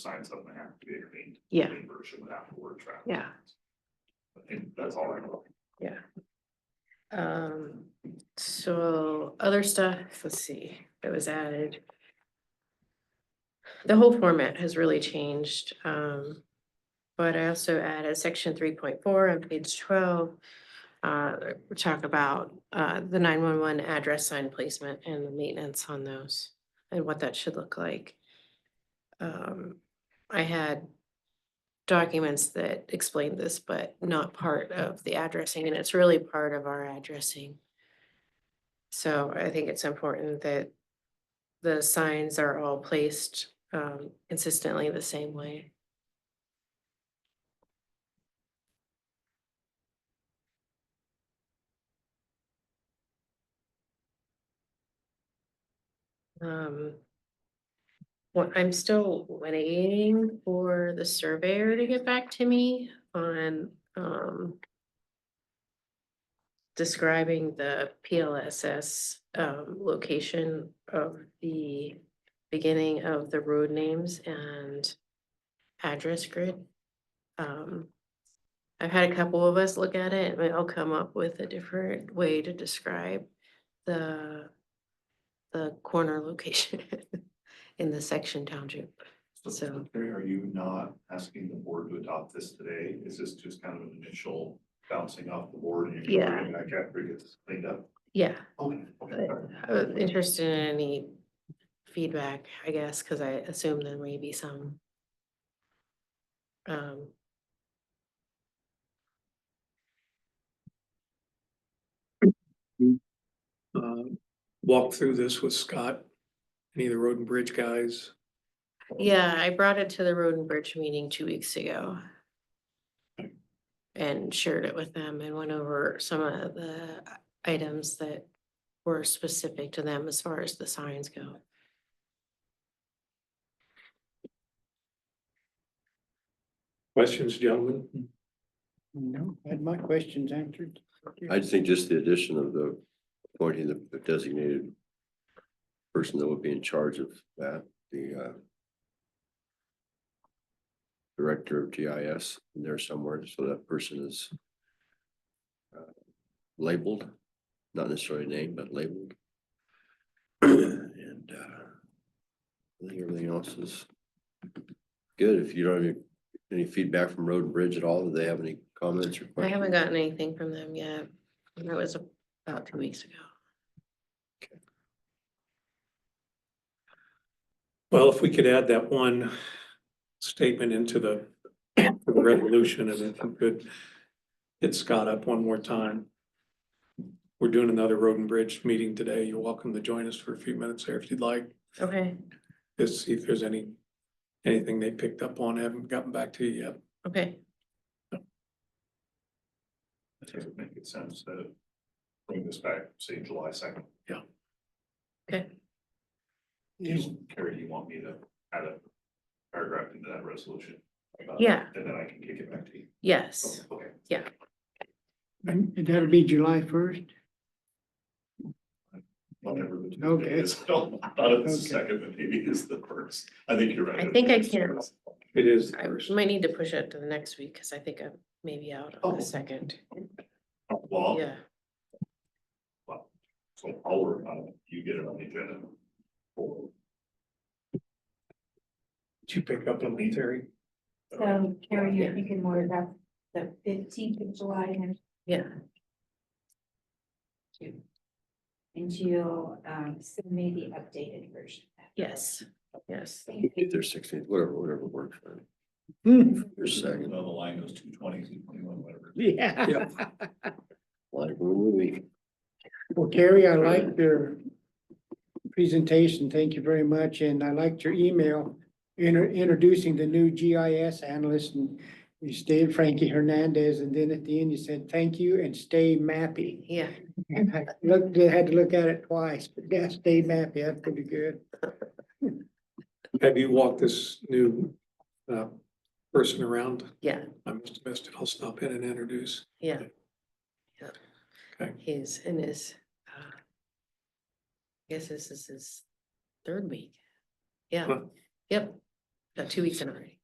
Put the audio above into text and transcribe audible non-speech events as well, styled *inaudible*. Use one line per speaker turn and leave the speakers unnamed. sign something have to be cleaned.
Yeah.
clean Version without the word traffic.
Yeah,
I think that's all I know.
um, so other stuff, let's see, that was added. The whole format has really changed, um, but I also added section three point four on page twelve. Uh, we talk about, uh, the nine one one address sign placement and the maintenance on those and what that should look like. Um, I had documents that explain this, but not part of the addressing, and it's really part of our addressing. So I think it's important that the signs are all placed um consistently the same way. Um, well, I'm still waiting for the surveyor to get back to me on, um. Describing the PLSS, um, location of the beginning of the road names and address grid. Um, I've had a couple of us look at it and we all come up with a different way to describe the, the corner location. *laughs* in the section township. So-
Terry, are you not asking the board to adopt this today? Is this just kind of an initial bouncing off the board? and you're gonna bring it Back after it gets cleaned up?
Yeah,
Okay, okay.
but I was interested in any feedback, I guess, because I assume there may be some. Um.
uh, walked through this with Scott, any of the road and bridge guys.
Yeah, I brought it to the Road and Bridge meeting two weeks ago. And shared it with them and went over some of the items that were specific to them as far as the signs go.
Questions, gentlemen?
No, I had my questions answered.
I just think just the addition of the appointing the designated person that would be in charge of that, the uh director of GIS in there somewhere, so that person is uh, labeled, not necessarily named, but labeled. And uh I think everything else is good. If you don't have any- any feedback from Road and Bridge at all, do they have any comments or
I
questions?
haven't gotten anything from them yet. That was about two weeks ago.
Well, if we could add that one statement into the the resolution and if we could hit Scott up one more time. We're doing another road and bridge meeting today. You're welcome to join us for a few minutes there if you'd like,
Okay,
to see if there's any, anything they picked up on, haven't gotten back to you yet.
okay.
That doesn't make it sense to bring this back, say, July second. Terry, do you want me to add a paragraph into that resolution? about it?
Yeah.
And then I can kick it back to you.
Yes,
Okay.
And that'll be July first?
Whatever the two
Okay.
is. I don't- I thought it was the
Okay.
second, but maybe it's the first. I think you're right.
I think I can-
It is.
I might need to push it to the next week because I think I'm maybe out on
Oh.
the second.
Well,
Yeah,
so I'll work on it. You get it on the agenda. for-
Did you pick up on me, Terry?
So Carrie, you're thinking more about the fifteenth of July and
yeah,
and you'll um send me the updated version.
yes, yes.
If they're sixteen, whatever, whatever works. for them. There's a second,
Well, the line goes two twenty, two twenty-one, whatever.
Yeah.
like a movie.
Well, Gary, I liked your presentation. Thank you very much. And I liked your email inter- introducing the new GIS analyst and you stated Frankie Hernandez. And then at the end, you said, thank you and stay mappy. *laughs*
Yeah,
And I looked, I had to look at it twice, but yeah, stay mappy. That's pretty good.
Have you walked this new uh, person around?
yeah,
I must have missed it. I'll stop in and introduce.
yeah. yeah.
Okay.
He's in his, uh, I guess this is his third week. Yeah,
Huh.
yep. uh, two weeks in already.